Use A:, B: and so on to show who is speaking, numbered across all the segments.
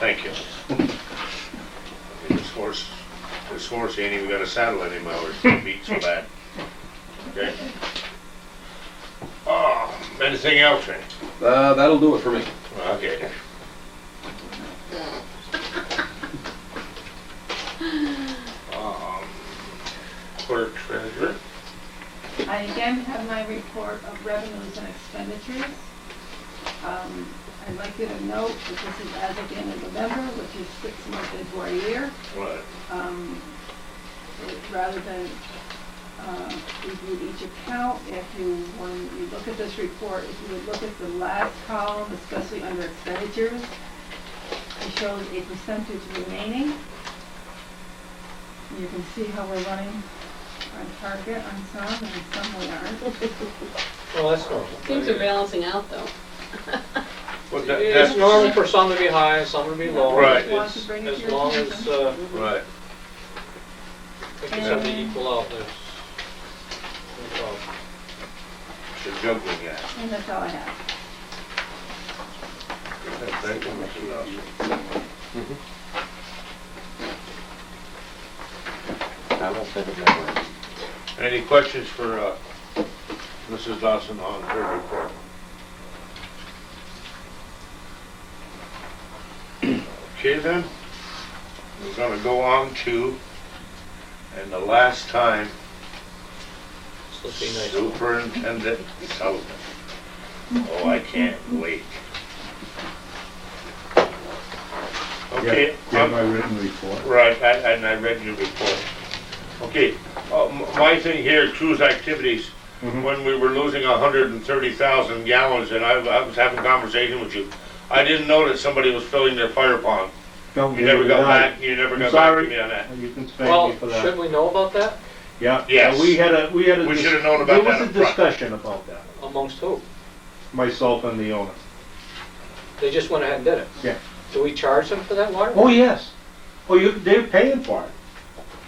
A: Thank you. This horse, this horse ain't even got a saddle anymore, it's beat so bad. Okay. Oh, anything else, Randy?
B: Uh, that'll do it for me.
A: Okay. Um, Clerk treasurer,
C: I again have my report of revenues and expenditures. Um, I'd like you to note that this is as of the end of November, which is six months into our year.
A: what?
C: Um, Rather than uh, review each account, if you, when you look at this report, if you would look at the last column, especially under expenditures, it shows a percentage remaining. You can see how we're running on target on some, and some we aren't.
D: Well, that's normal.
E: Things are balancing out though.
A: Well, that-
D: It's
A: that's,
D: normal for some to be high and some to be low.
A: Right.
D: It's-
C: Want to bring it to
D: As
C: your
D: long as,
C: attention?
D: uh,
A: right,
D: if it's something equal out, there's no problem.
A: the juggling act.
C: And that's all I have.
A: Thank you, Mr. Nelson. Mm-hmm.
F: I don't think it matters.
A: Any questions for uh, Mrs. Dawson on her report? Okay then, we're gonna go on to, and the last time,
D: So be nice.
A: Superintendent Sullivan. Oh, I can't wait. Okay.
G: Yeah,
A: I'm-
G: my written report.
A: Right, I- and I read your report. Okay, uh, m- my thing here, cruise activities,
G: Mhm.
A: when we were losing hundred and thirty thousand gallons, and I I was having a conversation with you, I didn't know that somebody was filling their fire pond.
G: Don't
A: You
G: give
A: never
G: it
A: got
G: away.
A: back, you never
G: I'm
A: got back to
G: sorry.
A: me on that.
G: You can thank
D: Well,
G: me for
D: should
G: that.
D: we know about that
G: Yeah,
A: Yes.
G: yeah, we had a, we had a.
A: We
G: dis-
A: should've known about that
G: There
A: up
G: was a
A: front.
G: discussion about that,
D: amongst who?
G: myself and the owner.
D: They just went ahead and did it.
G: Yeah.
D: Do we charge them for that water?
G: Oh, yes. Oh, you, they're paying for it.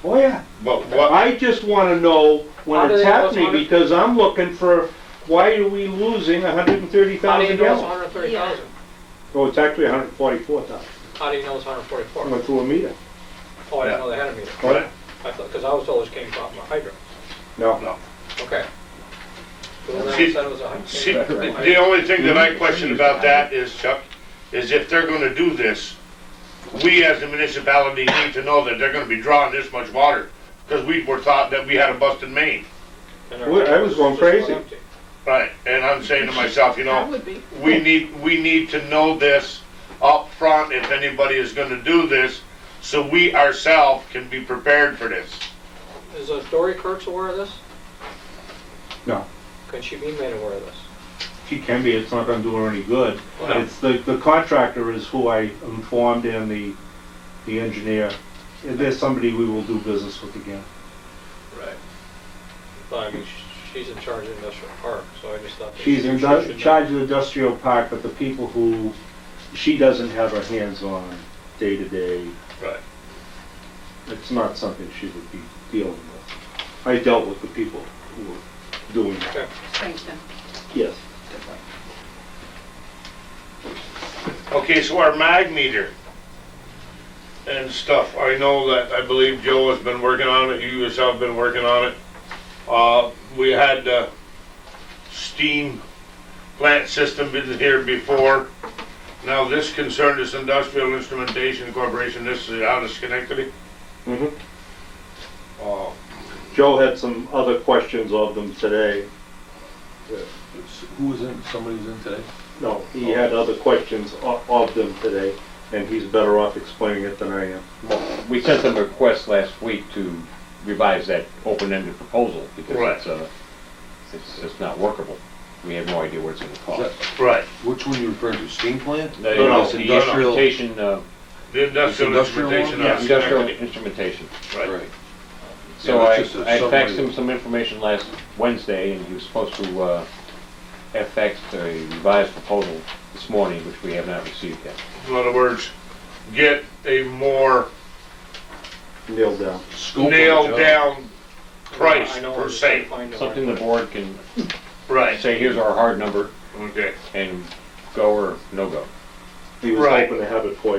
G: Oh, yeah.
A: But what,
G: I just wanna know
D: How
G: when
D: do
G: it's
D: they know it's
G: happening,
D: hundred-
G: because I'm looking for, why are we losing hundred and thirty
D: How do you
G: thousand
D: know it's
G: gallons?
D: hundred and thirty thousand?
G: Oh, it's actually hundred and forty-four thousand.
D: How do you know it's hundred and
G: I
D: forty-four?
G: went through a meter.
D: Oh, I
A: Yeah.
D: didn't know they had a meter.
G: What?
D: I thought, because I was told it came from a hydrant.
G: No.
A: no.
D: Okay. So then I
A: See-
D: said it was a hydrant.
A: See, the the only thing that I question about that is, Chuck, is if they're gonna do this, we as a municipality need to know that they're gonna be drawing this much water, because we were thought that we had a busted main.
D: And our
G: Well, I was going
D: tank just
G: crazy.
D: empty.
A: Right, and I'm saying to myself, you know,
E: That would be.
A: we need, we need to know this up front if anybody is gonna do this, so we ourselves can be prepared for this.
D: Is uh, Dory Kurtz aware of this?
G: No.
D: Could she be made aware of this?
G: She can be, it's not gonna do her any good.
A: No.
G: It's the, the contractor is who I informed and the, the engineer. If There's somebody we will do business with again.
A: Right.
D: But I mean, sh- she's in charge of industrial park, so I just thought. that
G: She's
D: she
G: in
D: should
G: du-
D: know.
G: charge of the industrial park, but the people who, she doesn't have her hands on day to day.
A: Right.
G: It's not something she would be dealing with. I dealt with the people who were doing that.
D: Okay.
C: Thank you.
G: Yes.
A: Okay, so our mag meter and stuff, I know that, I believe Joe has been working on it, you yourself have been working on it. Uh, we had, uh, steam plant system been here before. Now, this concerned is Industrial Instrumentation Corporation, this is out of Schenectady.
G: Mhm.
A: Uh,
H: Oh.
G: Joe had some other questions of them today.
F: Who was in, somebody was in today?
G: No, he had other questions o- of them today, and he's better off explaining it than I am.
F: We sent them a request last week to revise that open-ended proposal because
A: Right.
F: it's, uh, it's, it's not workable. We have no idea what it's gonna cost.
A: Right,
H: Which one you referring to, steam plant?
F: No,
A: no,
F: no, it's
A: the
F: industrial, instrumentation, uh,
A: the Industrial
H: Industrial one?
A: Instrumentation out of
F: industrial
A: Schenectady.
F: instrumentation.
A: Right,
F: So
H: Yeah,
F: I,
H: it's just a
F: I faxed
H: summary.
F: him some information last Wednesday and he was supposed to, uh, FX a revised proposal this morning, which we have not received yet.
A: in other words, get a more
G: Nailed down.
H: Scope of the
A: nailed
H: job.
A: down price
D: I know
A: per
D: it's
A: se.
D: defined in
F: Something the
D: our-
F: board can
A: Right,
F: say, here's our hard number
A: okay.
F: and go or no go.
G: He was
A: Right.
G: hoping to have it for you.